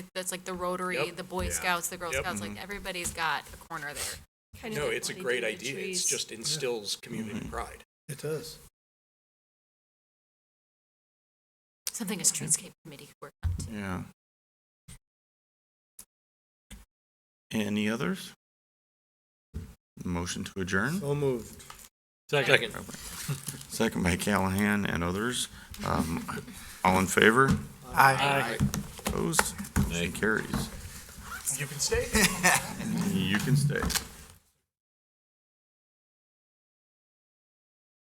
that's like the Rotary, Yep. the Boy Yeah. Scouts, the Girl Yep. Mm-hmm. Scouts, like everybody's got a corner there. Kind of No, like it's a planting great the idea. It's trees. just instills community pride. It does. Something a streetscape committee could work on. Yeah. Any others? Motion to adjourn, So moved. Second. second by Callahan and others. Um, All in favor? Aye. Opposed? Motion carries. You can stay. You can stay.